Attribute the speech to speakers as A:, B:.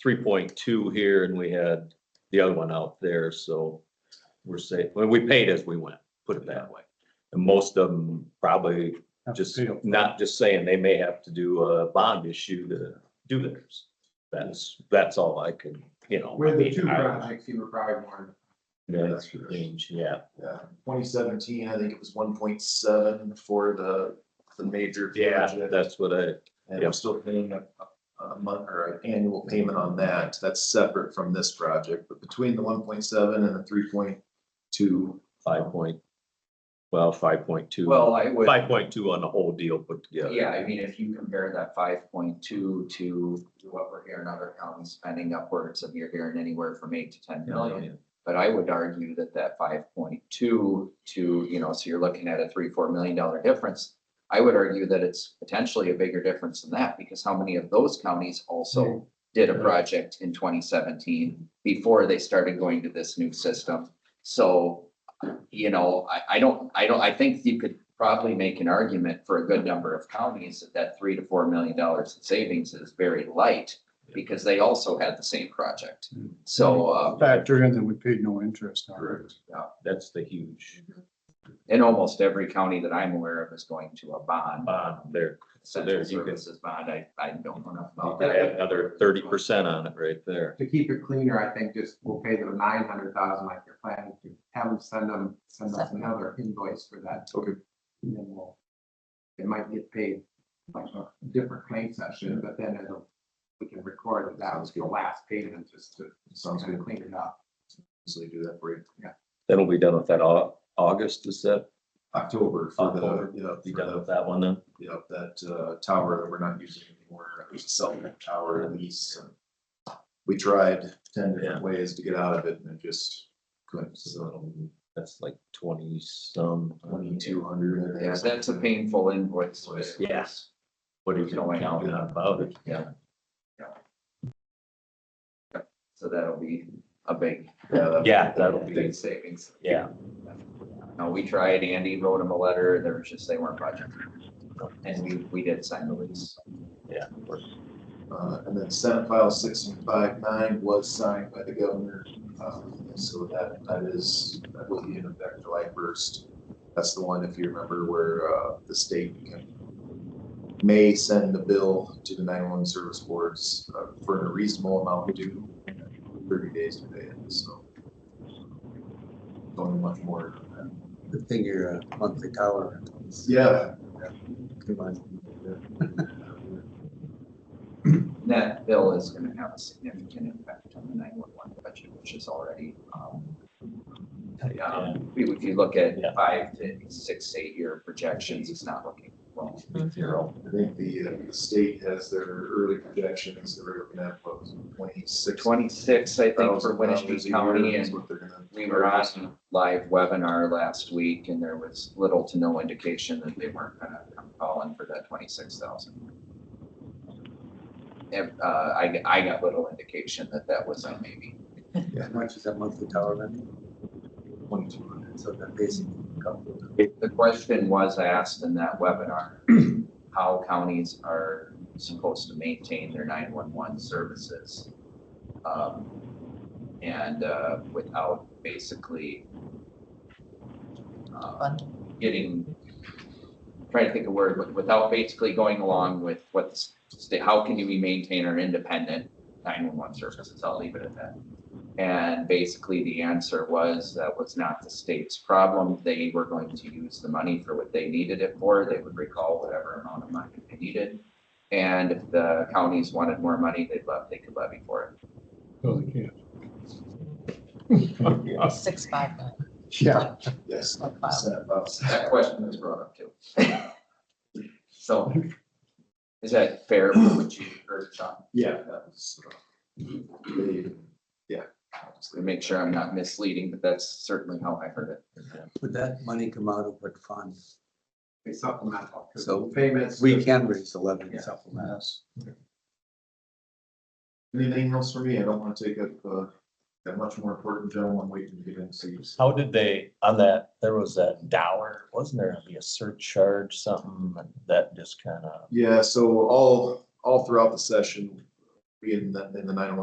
A: three point two here and we had the other one out there, so we're safe. Well, we paid as we went, put it that way. And most of them probably
B: Have to
A: just,
B: pay up.
A: not just saying they may have to do a bond issue to do theirs. That's, that's all I can, you know. I
C: With the
A: mean,
C: two
A: I-
C: projects, you were probably more,
A: That's the range, yeah.
C: uh, twenty seventeen, I think it was one point seven for the, the major project.
A: That's what I,
C: And
A: yeah.
C: I'm still paying a, a month or an annual payment on that. That's separate from this project, but between the one point seven and the three point two.
A: five point, well, five point two.
D: Well, I would,
A: Five point two on the whole deal put together.
D: yeah, I mean, if you compare that five point two to what we're hearing other counties spending upwards of, you're hearing anywhere from eight to ten million. But I would argue that that five point two to, you know, so you're looking at a three, four million dollar difference. I would argue that it's potentially a bigger difference than that, because how many of those counties also did a project in twenty seventeen before they started going to this new system? So, you know, I, I don't, I don't, I think you could probably make an argument for a good number of counties that that three to four million dollars in savings is very light, because they also had the same project. So, uh,
B: Factor in that we paid no interest on it.
A: That's the huge
D: And almost every county that I'm aware of is going to a bond,
A: bond there. So
D: essential
A: there's you can-
D: services bond. I, I don't know enough
A: You
D: about
A: could add
D: that.
A: another thirty percent on it right there.
E: to keep it cleaner, I think just we'll pay them nine hundred thousand like you're planning to, have them send them, send us another invoice for that.
C: Okay.
E: And then we'll, it might get paid like a different claim session, but then it'll, we can record that that was the last payment just to
C: Sounds
E: kind
C: good.
E: of clean it up.
C: Easily do that for you.
A: That'll be done with that Au- August, is that?
C: October for the,
A: October.
C: you know,
A: Be
C: for
A: done
C: the-
A: with that one then?
C: you know, that uh tower that we're not using anymore, it was a cell phone tower lease. and We tried ten
A: Yeah.
C: different ways to get out of it and it just couldn't, so
A: So that's like twenty some.
C: twenty-two hundred.
D: Yeah, that's a painful invoice.
A: Yes. What are you going out and about it?
D: So that'll be a big,
A: Yeah, that'll be,
D: big savings.
A: yeah.
D: No, we tried. Andy wrote him a letter. There was just, they weren't budgeting. And we, we did sign the lease.
C: Uh, and then Senate File six five nine was signed by the governor, um, so that, that is, that will be in effect July first. That's the one, if you remember, where, uh, the state can, may send the bill to the nine-one service boards uh, for a reasonable amount due thirty days to pay it, so. Don't much more than that.
F: Good thing you're a monthly tower.
C: Yeah,
F: Come on.
D: And That bill is gonna have a significant impact on the nine-one-one budget, which is already, um,
A: Yeah.
D: Um, we- If you look at
A: Yeah.
D: five to six, eight-year projections, it's not looking well. Zero.
C: I think the, uh, the state has their early projections, they're looking at, what was it, twenty-six?
D: Twenty-six, I think, for Winnebago County, and we
C: We
D: were on live webinar last week, and there was little to no indication that they weren't gonna come calling for that twenty-six thousand. And, uh, I, I got little indication that that was a maybe.
F: How much is that monthly tower then?
C: Twenty-two hundred.
F: So that basically. couple of-
D: The question was asked in that webinar, how counties are supposed to maintain their nine-one-one services. um, And uh, without basically uh, getting, trying to think of a word, but without basically going along with what the state, how can we maintain our independent nine-one-one services? I'll leave it at that. And basically, the answer was that was not the state's problem. They were going to use the money for what they needed it for. They would recall whatever amount of money they needed. And if the counties wanted more money, they'd love, they could levy for it.
B: No, they can't.
G: Six, five, nine.
B: Yeah.
C: Yes.
G: Like five.
C: Senate files.
D: That question was brought up too. So is that fair for what you heard, Sean?
C: Yeah, that was. uh, they- Yeah.
D: To make sure I'm not misleading, but that's certainly how I heard it.
F: Would that money come out of what fund?
E: Be supplemental. 'cause
F: So
E: Payments.
F: We can raise the levy and
D: Yeah.
F: supplement.
C: Anything else for me? I don't want to take up, uh, that much more important general, I'm waiting to get in, so you just-
A: How did they, on that, there was a dollar, wasn't there be a surcharge, something that just kind of?
C: Yeah, so all, all throughout the session, we in the, in the nine